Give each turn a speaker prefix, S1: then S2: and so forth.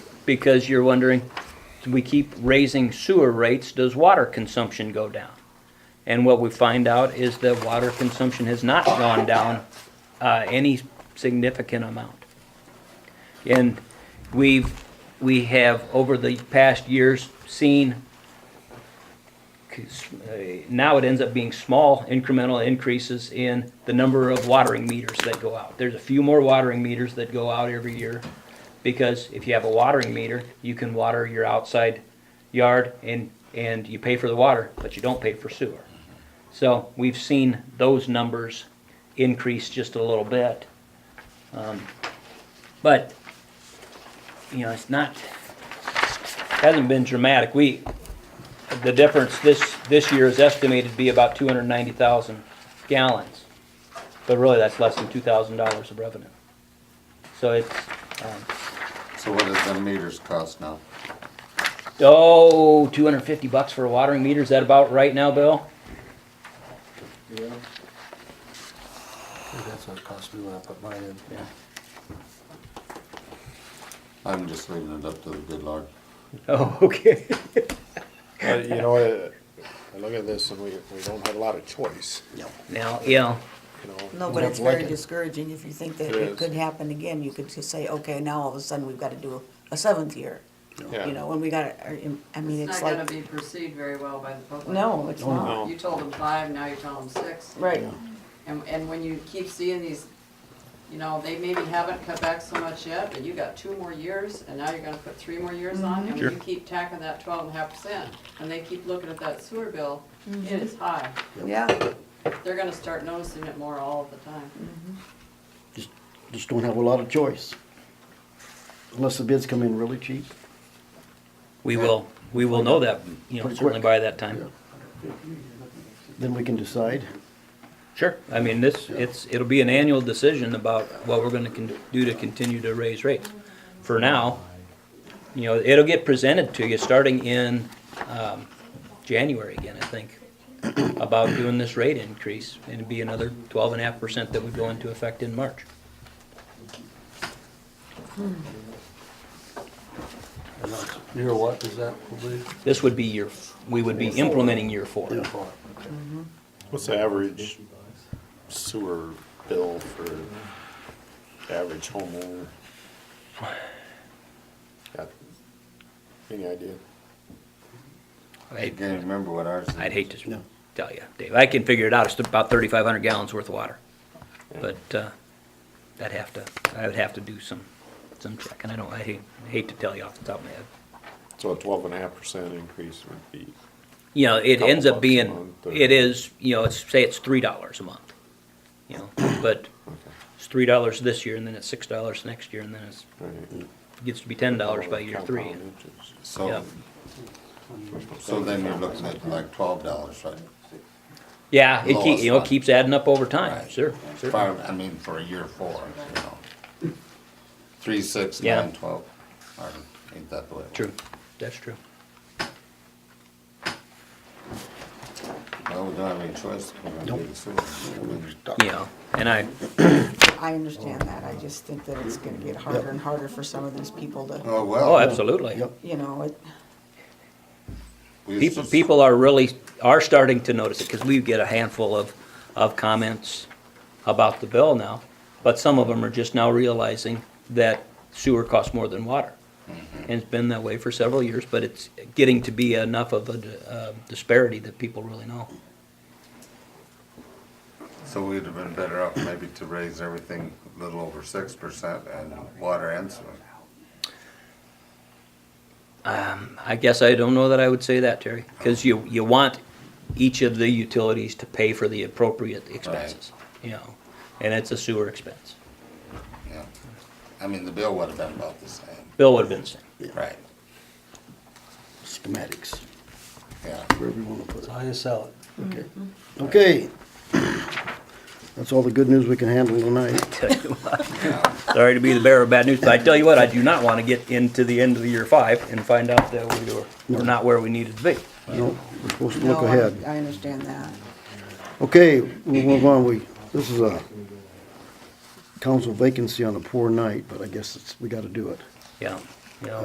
S1: because you're wondering, we keep raising sewer rates, does water consumption go down? And what we find out is that water consumption has not gone down uh, any significant amount. And we've, we have, over the past years, seen, 'cause, uh, now it ends up being small incremental increases in the number of watering meters that go out. There's a few more watering meters that go out every year, because if you have a watering meter, you can water your outside yard and, and you pay for the water, but you don't pay for sewer. So we've seen those numbers increase just a little bit. Um, But, you know, it's not, hasn't been dramatic. We, the difference this, this year is estimated to be about two hundred and ninety thousand gallons. But really, that's less than two thousand dollars of revenue. So it's, um,
S2: So what does the meters cost now?
S1: Oh, 250 bucks for a watering meter, is that about right now, Bill?
S3: That's what it cost me when I put mine in.
S2: I'm just leaving it up to the good Lord.
S1: Oh, okay.
S4: But, you know, I, I look at this and we, we don't have a lot of choice,
S1: Now, yeah,
S4: you know.
S5: No, but it's
S4: We have
S5: very
S4: Lincoln.
S5: discouraging if you think that
S4: It
S5: it
S4: is.
S5: could happen again, you could just say, okay, now all of a sudden we've gotta do a seventh year.
S4: Yeah.
S5: You know, when we got, I mean,
S6: It's
S5: it's
S6: not gonna
S5: like,
S6: be perceived very well by the public.
S5: no, it's not,
S4: no.
S6: You told them five, now you're telling them six.
S5: right,
S6: And, and when you keep seeing these, you know, they maybe haven't cut back so much yet, but you got two more years, and now you're gonna put three more years
S5: Mm-hmm.
S6: on, and when you keep tacking that twelve and a half percent, and they keep looking at that sewer bill,
S5: Mm-hmm.
S6: it is high.
S5: yeah,
S6: They're gonna start noticing it more all of the time.
S5: Mm-hmm.
S7: just, just don't have a lot of choice. Unless the bids come in really cheap.
S1: we will, we will know that, you know,
S7: Pretty
S1: certainly
S7: quick.
S1: by that time.
S7: Then we can decide.
S1: Sure, I mean, this, it's, it'll be an annual decision about what we're gonna con- do to continue to raise rates. For now, you know, it'll get presented to you starting in, um, January again, I think, about doing this rate increase, and it'd be another 12.5 percent that would go into effect in March.
S3: And that's, year what is that, will be?
S1: This would be year, f- we would be implementing year four.
S4: What's the average sewer bill for average homeowner? Got Any idea?
S2: I
S1: I-
S2: can't remember what ours is.
S1: I'd hate to
S7: No.
S1: tell you, Dave. I can figure it out. It's about thirty-five hundred gallons worth of water. But, uh, I'd have to, I would have to do some, some check, and I don't, I hate, hate to tell you off the top of my head.
S4: So a twelve and a half percent increase would be,
S1: You know, it ends up
S4: Couple bucks a
S1: being,
S4: month, or-
S1: it is, you know, it's, say it's three dollars a month, you know, but it's three dollars this year, and then it's six dollars next year, and then it's,
S4: right?
S1: gets to be ten dollars
S4: Oh,
S1: by year three.
S4: Compound interest.
S1: Yeah.
S2: So, so then you're looking at like twelve dollars, right?
S1: Yeah, it keep,
S2: Lowest
S1: you know,
S2: one.
S1: keeps adding up over time,
S2: Right.
S1: sure,
S2: If
S1: sure.
S2: I I mean, for a year four, you know. Three, six,
S1: Yeah.
S2: nine, twelve, or ain't that the way? it works?
S1: True, that's true.
S2: Well, we don't have any choice. We're gonna do the sewer. I mean,
S1: You know, and I,
S5: I understand that, I just think that it's gonna get harder and harder for some of these people to,
S2: Oh,
S1: oh,
S2: well.
S1: absolutely.
S7: Yep.
S5: you know, it,
S2: we used
S1: People,
S2: to-
S1: people are really, are starting to notice it, because we get a handful of, of comments about the bill now, but some of them are just now realizing that sewer costs more than water. And it's been that way for several years, but it's getting to be enough of a d- uh, disparity that people really know.
S2: So we'd have been better off maybe to raise everything a little over six percent and water and sewer.
S1: I guess I don't know that I would say that, Terry, because you, you want each of the utilities to pay for the appropriate expenses, you know, and it's a sewer expense.
S2: Yeah. I mean, the bill would have been about the same.
S1: Bill would have been the same.
S2: Right,
S7: Schematics,
S2: yeah.
S7: wherever you wanna put it.
S3: How you sell it?
S7: Okay.
S5: Mm-hmm.
S7: Okay. That's all the good news we can handle tonight.
S1: tell you what. Sorry to be the bearer of bad news, but I tell you what, I do not want to get into the end of the year five and find out that we were, we're not where we needed to be.
S7: No, we're supposed to
S5: no,
S7: look
S5: I,
S7: ahead.
S5: I understand that.
S7: Okay, we'll move on. We, this is a council vacancy on a poor night, but I guess it's, we gotta do it.
S1: Yeah.